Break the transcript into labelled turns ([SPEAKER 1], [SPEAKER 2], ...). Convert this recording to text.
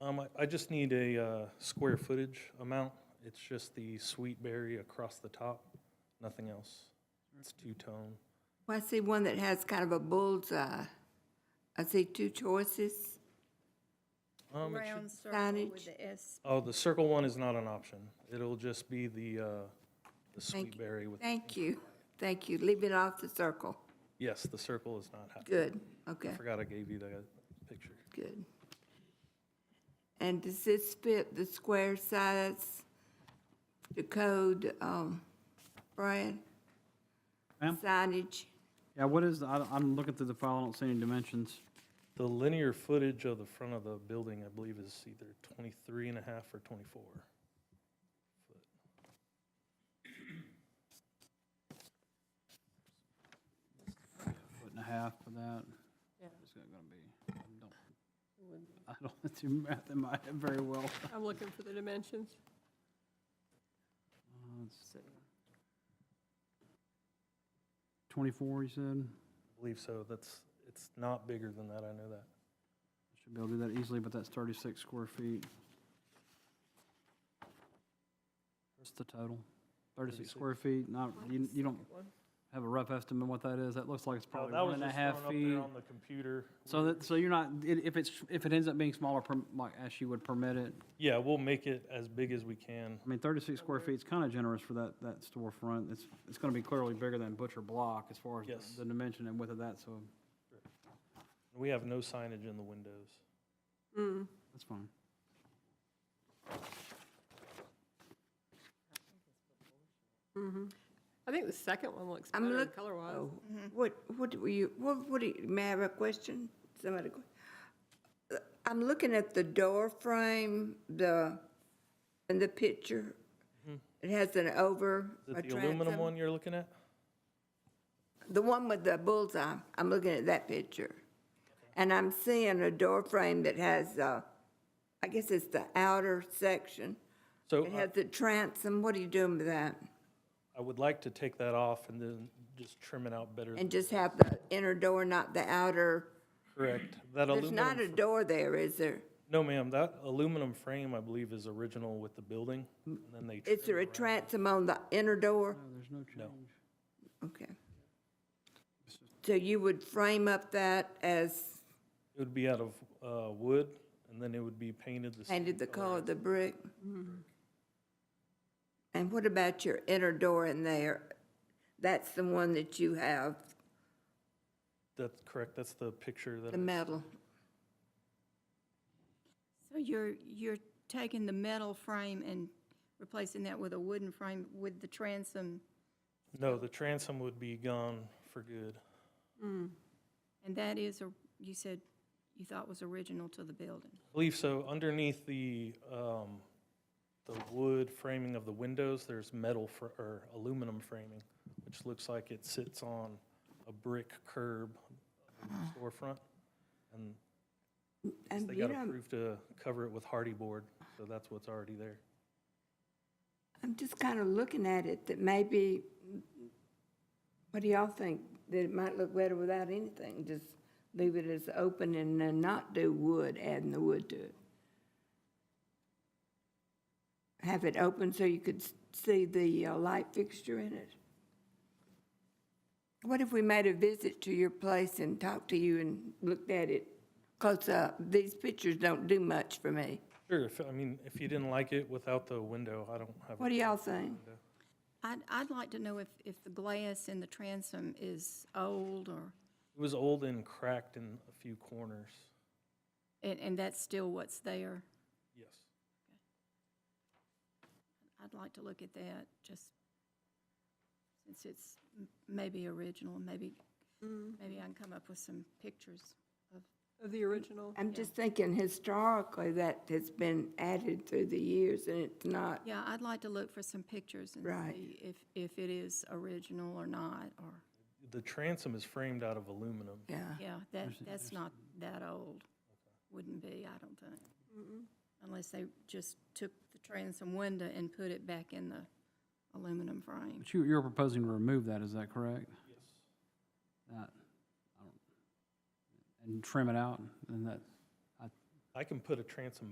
[SPEAKER 1] Um, I, I just need a, uh, square footage amount. It's just the sweet berry across the top, nothing else. It's two-tone.
[SPEAKER 2] Well, I see one that has kind of a bullseye. I see two choices.
[SPEAKER 1] Um, it should-
[SPEAKER 3] Round circle
[SPEAKER 2] Signage.
[SPEAKER 3] with the S.
[SPEAKER 1] oh, the circle one is not an option. It'll just be the, uh, the
[SPEAKER 2] Thank
[SPEAKER 1] sweet
[SPEAKER 2] you.
[SPEAKER 1] berry with,
[SPEAKER 2] Thank you, thank you. Leave it off the circle.
[SPEAKER 1] yes, the circle is not happening.
[SPEAKER 2] Good, okay,
[SPEAKER 1] Forgot I gave you that picture.
[SPEAKER 2] good. And does this fit the square size, the code, um, Brian?
[SPEAKER 4] Ma'am?
[SPEAKER 2] Signage,
[SPEAKER 4] Yeah, what is, the- I, I'm looking through the file, I don't see any dimensions.
[SPEAKER 1] The linear footage of the front of the building, I believe, is either 23 and a half or 24.
[SPEAKER 4] Foot and a half for that. It's not gonna be, I don't- I don't do math in my head very well.
[SPEAKER 5] I'm looking for the dimensions.
[SPEAKER 4] Uh, it's- Twenty-four, you said?
[SPEAKER 1] I believe so. That's, it's not bigger than that, I know that.
[SPEAKER 4] Should be able to do that easily, but that's thirty-six square feet. What's the total?
[SPEAKER 1] 36.
[SPEAKER 4] Thirty-six square feet, not, you, you don't have a rough estimate what that is? That looks like it's
[SPEAKER 1] No,
[SPEAKER 4] probably one and a half
[SPEAKER 1] That was just
[SPEAKER 4] feet.
[SPEAKER 1] thrown up there on the computer.
[SPEAKER 4] So that, so you're not, i- if it's, if it ends up being smaller, per- like, as you would permit it,
[SPEAKER 1] Yeah, we'll make it as big as we can.
[SPEAKER 4] I mean, thirty-six square feet's kind of generous for that, that storefront. It's, it's gonna be clearly bigger than Butcher Block as far as the-
[SPEAKER 1] Yes.
[SPEAKER 4] the dimension and width of that, so
[SPEAKER 1] We have no signage in the windows.
[SPEAKER 5] Mm.
[SPEAKER 4] that's fine.
[SPEAKER 5] I think the second one looks
[SPEAKER 2] I'm
[SPEAKER 5] better
[SPEAKER 2] look-
[SPEAKER 5] color wise.
[SPEAKER 2] oh, what, what were you, what, what, do you- may I have a question? Somebody, go- Uh, I'm looking at the door frame, the, in the picture. It has an over.
[SPEAKER 1] Mm-hmm. Is
[SPEAKER 2] a
[SPEAKER 1] it the aluminum
[SPEAKER 2] transom.
[SPEAKER 1] one you're looking at?
[SPEAKER 2] The one with the bullseye, I'm looking at that picture. And I'm seeing a door frame that has, uh, I guess it's the outer section.
[SPEAKER 1] So
[SPEAKER 2] It
[SPEAKER 1] I-
[SPEAKER 2] has the transom, what are you doing with that?
[SPEAKER 1] I would like to take that off and then just trim it out better.
[SPEAKER 2] And just have the inner door, not the outer.
[SPEAKER 1] Correct. That
[SPEAKER 2] There's not a
[SPEAKER 1] aluminum,
[SPEAKER 2] door there, is there?
[SPEAKER 1] no ma'am, that aluminum frame, I believe, is original with the building. And then they,
[SPEAKER 2] Is there a transom on the inner door?
[SPEAKER 4] No, there's no change.
[SPEAKER 2] Okay. So you would frame up that as
[SPEAKER 1] it would be out of uh, wood and then it would be painted the same.
[SPEAKER 2] painted the color of the brick?
[SPEAKER 4] Mm-hmm.
[SPEAKER 2] And what about your inner door in there? That's the one that you have,
[SPEAKER 1] That's correct. That's the picture that.
[SPEAKER 2] the metal.
[SPEAKER 3] So you're, you're taking the metal frame and replacing that with a wooden frame with the transom,
[SPEAKER 1] No, the transom would be gone for good.
[SPEAKER 5] Mm.
[SPEAKER 3] and that is, a- you said, you thought was original to the building?
[SPEAKER 1] I believe so. Underneath the, um, the wood framing of the windows, there's metal fr- or aluminum framing, which looks like it sits on a brick curb of the storefront. And
[SPEAKER 2] And
[SPEAKER 1] they
[SPEAKER 2] you
[SPEAKER 1] got
[SPEAKER 2] know,
[SPEAKER 1] approved to cover it with hardy board, so that's what's already there.
[SPEAKER 2] I'm just kind of looking at it, that maybe, what do y'all think? That it might look better without anything, just leave it as open and then not do wood, adding the wood to it. Have it open so you could s- see the uh, light fixture in it. What if we made a visit to your place and talked to you and looked at it close up? These pictures don't do much for me.
[SPEAKER 1] Sure, if, I mean, if you didn't like it without the window, I don't have. a
[SPEAKER 2] What do y'all think?
[SPEAKER 1] window.
[SPEAKER 3] I'd, I'd like to know if, if the glass in the transom is old or,
[SPEAKER 1] It was old and cracked in a few corners,
[SPEAKER 3] and, and that's still what's there.
[SPEAKER 1] yes.
[SPEAKER 3] I'd like to look at that, just since it's m- maybe original, maybe, maybe I can come up with some pictures of
[SPEAKER 5] Of the original.
[SPEAKER 2] I'm just thinking historically that has been added through the years and it's not.
[SPEAKER 3] Yeah, I'd like to look for some pictures and
[SPEAKER 2] Right.
[SPEAKER 3] see if, if it is original or not, or,
[SPEAKER 1] The transom is framed out of aluminum.
[SPEAKER 2] Yeah.
[SPEAKER 3] yeah, that, that's not that old. Wouldn't be, I don't think. Unless they just took the transom window and put it back in the aluminum frame.
[SPEAKER 4] But you, you're proposing to remove that, is that correct? Yes. That, I don't, and trim it out, and that,
[SPEAKER 1] I can put a transom